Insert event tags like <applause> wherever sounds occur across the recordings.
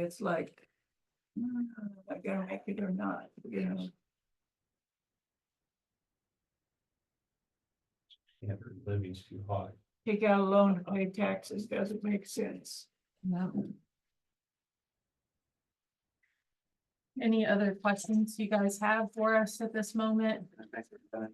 It's like, mm, am I gonna make it or not, you know? Yeah, living's too high. Take out a loan to pay taxes doesn't make sense. No. Any other questions you guys have for us at this moment?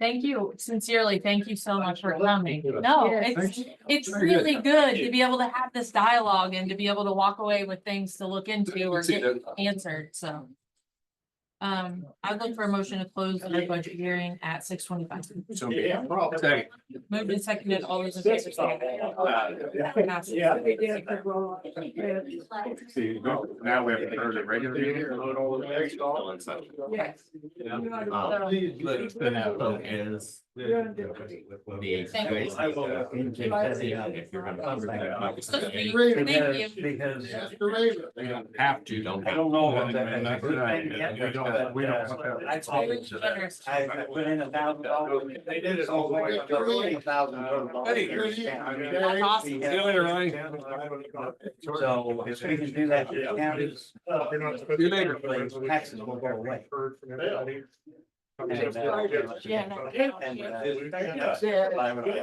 Thank you sincerely. Thank you so much for coming. No, it's, it's really good to be able to have this dialogue and to be able to walk away with things to look into or get answered, so. Um, I'd look for a motion to close the budget hearing at six twenty-five. So. Yeah. Second. Moved and seconded, all those in favor say aye. Passes. Yeah. They did the roll off the bed. See, no, now we have to heard it Yes. Um, Please let us spin out. Focus. Thank you. I will, uh, if you're gonna come back. So sweet. Because- Thank you. Because. They don't have to, don't. I don't know about that. And that's what I- We don't- We don't, we don't. I told Very generous. I I put in a thousand dollars. They did it all the way up. Twenty thousand dollars. Hey, you're- I mean, That's awesome. See you later, Ryan. So if we can do that, the county. See you later. Taxes will go away. Yeah, no, they don't And, care. uh, Yeah. I would- Yeah.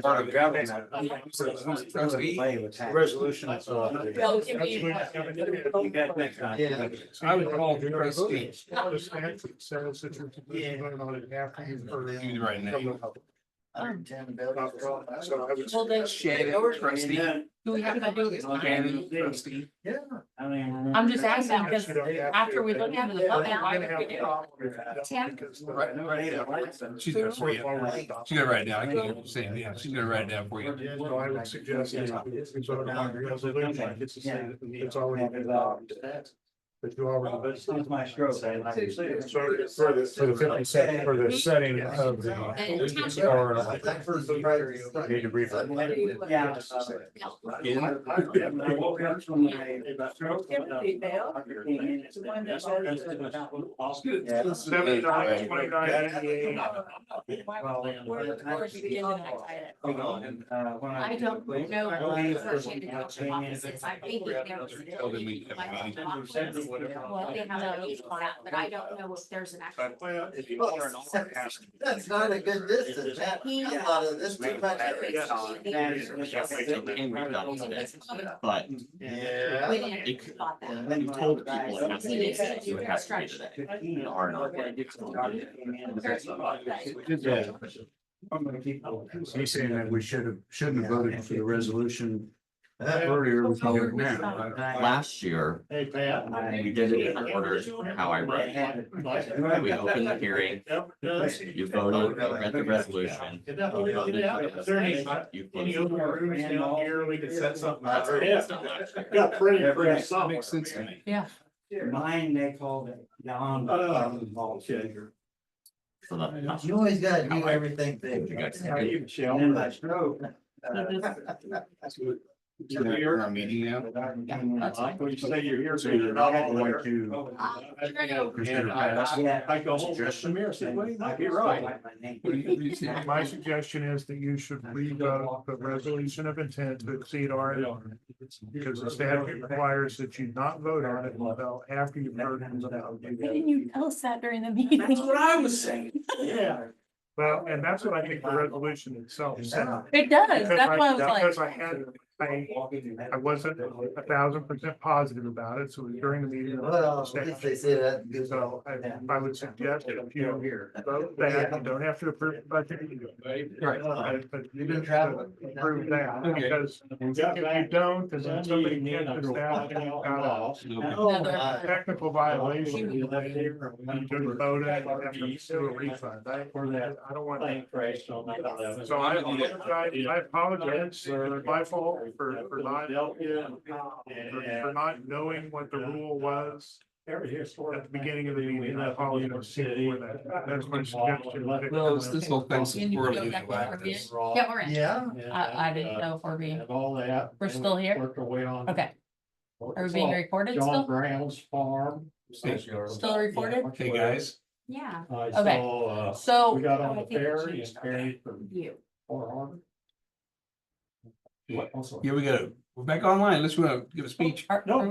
Part of government. Play with taxes. Resolution. Well, it can be- You got next time. Yeah. I would call the trustees. You right now. Under ten bills. Well, they- Do we have to do this? Shannon, trustee. Yeah. I mean. I'm just asking because after we look into the budget, why would we do it? Right, right now. She's gonna for you. She's gonna write it down. I can't even say, it. yeah, she's gonna write it down for you. No, I would suggest. Yeah. It's already been adopted. But you already. But since my stroke, I like. to see it. So for the, for the fifty cent, for the setting of the. And township- Or, uh, Need to brief. Yeah. I woke up from my stroke. Timothy Bell, It's the one that's always been- Yeah. Seventy-nine, twenty-nine, eighty-eight. Well, and- Where- where's the beginning of that? Hold on, and, uh, when I- I don't know. I believe the first one out came in- Offices, I think there was- Tell them we have a meeting. Well, they have their each one, but I don't know if there's an actual. That's not a good distance, that, a lot of this too much. That is- But. Yeah. We didn't thought that. And then You told people it has has to to be be today. today. You have to be today. R and R. He's saying that we should have, shouldn't have voted for the resolution earlier. we can do it now. Last year, Hey, Pat. we did it in order how I read it. We opened the hearing, you voted, you read the resolution. you voted for the resolution, you Any voted. other rooms down here, we could set something up. Got printed for Yeah. us somewhere. Makes sense to me. Yeah, Mine, they called it Don. Oh, Uh, Volunteer. So that- You always gotta do everything You guys- big. How are you, Michelle? And my stroke. so uh, this- That's good. You're in our meeting now? but I mean, that's like, When you say you're here, so Um, So you're you're not not all going there. to. Oh, Christina, I- I- Yeah. I go home. Suggestion. Samir said, "Well, you might be right." What do <laughs> you- what do you see? My suggestion is that you should leave out the resolution of intent to exceed R and R. Because the statute requires that you not vote on it until after you've heard. it. Why didn't you tell us that during the meeting? I was saying. Yeah. Well, and that's what I think the resolution itself said. It does, Because that's why I was like. Because I had, I, I wasn't a thousand percent positive about it, so it was during the meeting. Well, at least they say that. in good So I, I would suggest that if you here. vote that, you don't have to approve the budget. Right. But- But you You've been didn't traveling. approve that Okay. because if you don't, then then somebody catches that and you've got "Oh, oh, a technical violation. You didn't vote it, you have to sue a refund. I, I don't want that. So I, I I apologize, it's my fault for, for not, for for not knowing what the rule was. At the beginning of the meeting, I apologize for that. That's my suggestion. Well, it's this whole thing's Can you go swirling back over like this. Yeah, we're in. Yeah. I, I didn't know if we're being, Have uh, all that. We're still here? Worked our way on. okay, are we being recorded John still? Brown's farm. Thank you. Still recorded? Hey, guys. Yeah, I Okay. saw, uh, So. we got on I the think it ferry changed. and ferry from you. Far Harbor. What, also? Here we go. We're back online. Let's uh, give a speech. Oh, Are- No, are